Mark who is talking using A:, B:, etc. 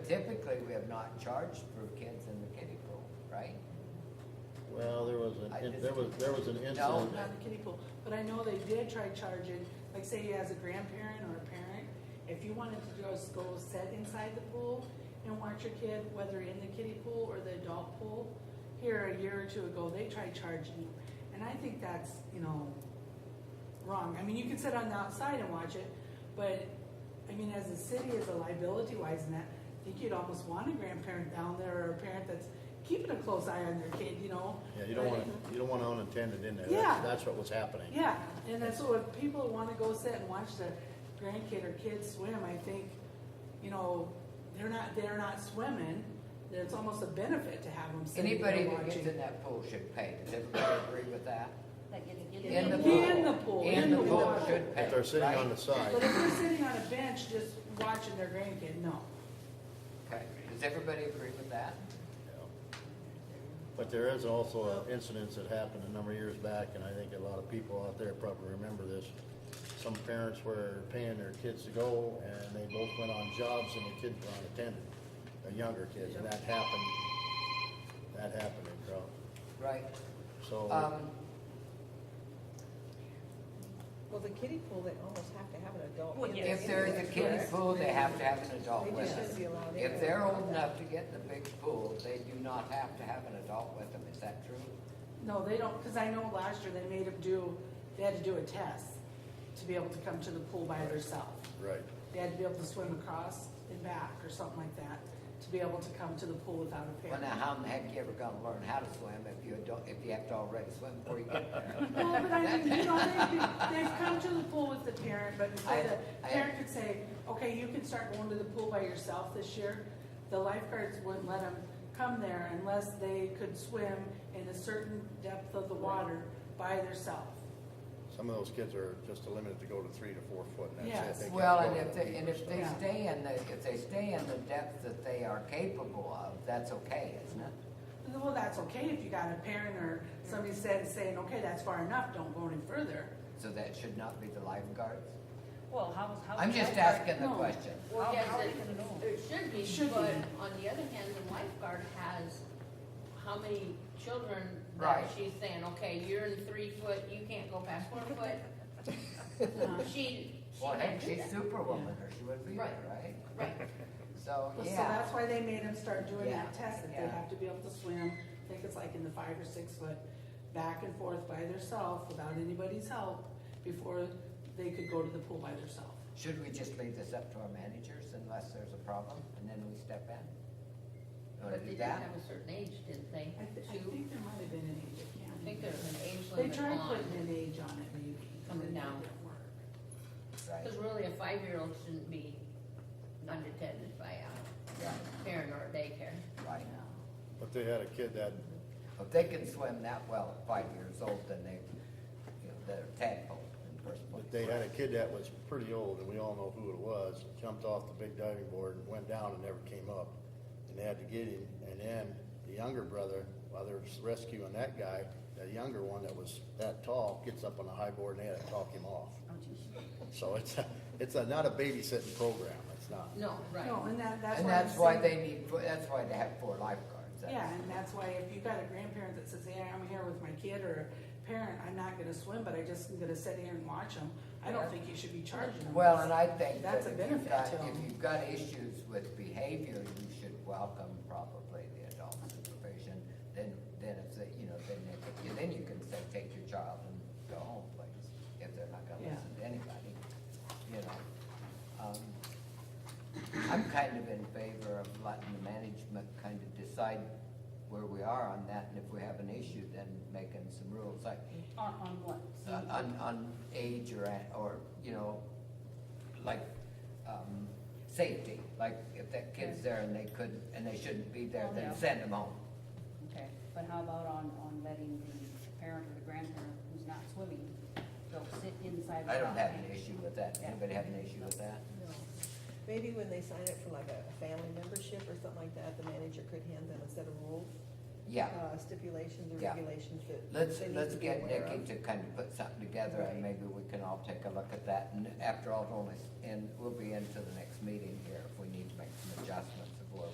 A: typically, we have not charged for kids in the kiddie pool, right?
B: Well, there was
A: I
B: an,
A: just-
B: there was, there was an
A: No.
B: incident.
C: Not the kiddie pool, but I know they did try charging, like say as a grandparent or a parent, if you wanted to just go sit inside the pool and watch your kid, whether in the kiddie pool or the adult pool, here a year or two ago, they tried charging you. And I think that's, you know, wrong. I mean, you can sit on the outside and watch it, but, I mean, as a city, as a liability wise and that, I think you'd almost want a grandparent down there or a parent that's keeping a close eye on their kid, you know? hmm
B: Yeah, you don't
C: But-
B: want, you don't want unattended in there.
C: Yeah.
B: That's- That's what was happening.
C: yeah, and that's what if people wanna go sit and watch their grandkid or kids swim, I think, you know, they're not, they're not swimming, then it's almost a benefit to have them sitting
A: Anybody
C: there
A: that gets in
C: watching.
A: that pool should pay. Does everybody agree with that?
D: Like in the.
C: In
A: the
C: the
A: pool.
C: pool,
A: In the pool
C: water.
A: should pay,
B: If they're sitting on the
A: right?
B: side,
C: But if they're sitting on a bench just watching their grandkid, no.
A: Okay, does everybody agree with that?
B: yeah. But there is also an incident that happened a number of years back, and I think a lot of people out there probably remember this. Some parents were paying their kids to go, and they both went on jobs, and the kids were unattended, the younger kids, and that happened. That happened in Crowell.
A: Right,
B: So,
A: um,
E: Well, the kiddie pool, they almost have to have an adult.
D: Well,
E: in
D: yes.
A: if they're
E: there
A: in the
E: anyway,
A: kiddie
E: correct?
A: pool, they have to have an adult
E: They
A: with
E: just shouldn't be
A: them.
E: allowed in.
A: If they're old enough to get in the big pool, they do not have to have an adult with them, is that true?
C: No, they don't, cause I know last year they made them do, they had to do a test to be able to come to the pool by themselves.
B: right.
C: They had to be able to swim across and back or something like that, to be able to come to the pool without a
A: Well,
C: parent.
A: now, how in the heck you ever gonna learn how to swim if you don't, if you have to already swim before you get there?
C: No, but I mean, you know, they've, they've come to the pool with the parent, but so
A: I-
C: the
A: I-
C: parent could say, okay, you can start going to the pool by yourself this year. The lifeguards wouldn't let them come there unless they could swim in a certain depth of the water by themselves.
B: Some of those kids are just limited to go to three to four foot, and
C: Yes.
B: that's it. They can't
A: Well,
B: go
A: and
B: to
A: if they,
B: deep
A: and
B: or
A: if they
C: Yeah.
A: stay in the, if they stay in the depth that they are capable of, that's okay, isn't it?
C: Well, that's okay if you got a parent or somebody said, saying, okay, that's far enough, don't go any further.
A: So that should not be the lifeguards?
D: Well, how, how.
A: I'm just asking the question.
D: How,
F: Well, yes,
D: how are
F: it,
D: we gonna know?
F: it should
C: It
F: be,
C: should
F: but
C: be.
F: on the other hand, the lifeguard has how many children
A: Right.
F: that she's saying, okay, you're in three foot, you can't go past four foot. She, she
A: Well,
F: can't
A: heck,
F: do
A: she's
F: that.
A: superwoman, or she would be there, right?
F: Right,
A: So,
C: So
A: yeah,
C: that's why they made them start doing that
A: Yeah.
C: test, that they
A: Yeah.
C: have to be able to swim, I think it's like in the five or six foot, back and forth by themselves without anybody's help, before they could go to the pool by themselves.
A: should we just leave this up to our managers unless there's a problem, and then we step in? You wanna
F: but they
A: do
F: did have
A: that?
F: a certain age, didn't they?
C: I thi- I
F: Two,
C: think there might have been an age, I can't.
F: I think there's an age
C: They
F: limit
C: tried
F: on,
C: putting an age on it maybe.
F: Coming
C: and it
F: down.
C: didn't work.
A: Right,
F: cause really a five-year-old shouldn't be unattended by
A: yeah,
F: a parent or a daycare.
A: right.
B: But they had a kid that,
A: If they can swim that well at five years old, then they, you know, they're tadpole in the first place.
B: but they had a kid that was pretty old, and we all know who it was, jumped off the big diving board and went down and never came up. And they had to get him, and then the younger brother, while they're rescuing that guy, that younger one that was that tall, gets up on the high board and they had to talk him off. So it's, a- it's a, not a babysitting program, it's not.
F: No, right.
C: No, and that, that's
A: And
C: why. I'm
A: that's why
C: saying-
A: they need, that's why they have four lifeguards. That's-
C: Yeah, and that's why if you got a grandparent that says, "Hey, I'm here with my kid," or a parent, "I'm not gonna swim, but I just am gonna sit here and watch them," I don't think you should be charging them.
A: Well, and I think that
C: That's
A: if
C: a
A: you've
C: benefit
A: got,
C: to 'em.
A: if you've got issues with behavior, you should welcome probably the adult supervision. Then, then if, they- you know, then they, could- then you can say, take your child and go home, please, if they're not gonna
C: Yeah.
A: listen to anybody, you know. Um, I'm kind of in favor of letting the management kind of decide where we are on that, and if we have an issue, then making some rules, like,
D: On, on what?
A: uh, on, on age or, at- or, you know, like, um, safety, like if that kid's there and they could, and they shouldn't be
E: Oh,
A: there, then
D: Yeah.
A: send them home.
D: Okay, but how about on, on letting the parent or the grandparent who's not swimming, go sit inside the
A: I don't
D: dock
A: have an
D: and-
A: issue with that.
D: Yeah.
A: Anybody have an issue with that?
E: No. Maybe when they sign up for like a a family membership or something like that, the manager could hand them a set of rules,
A: Yeah,
E: uh, stipulations or
A: Yeah.
E: regulations that.
A: let's,
E: they need
A: let's
E: to be
A: get
E: aware
A: Nikki
E: of.
A: to kind of put something together and
E: Right.
A: maybe we can all take a look at that. And after all, it only, and we'll be into the next meeting here if we need to make some adjustments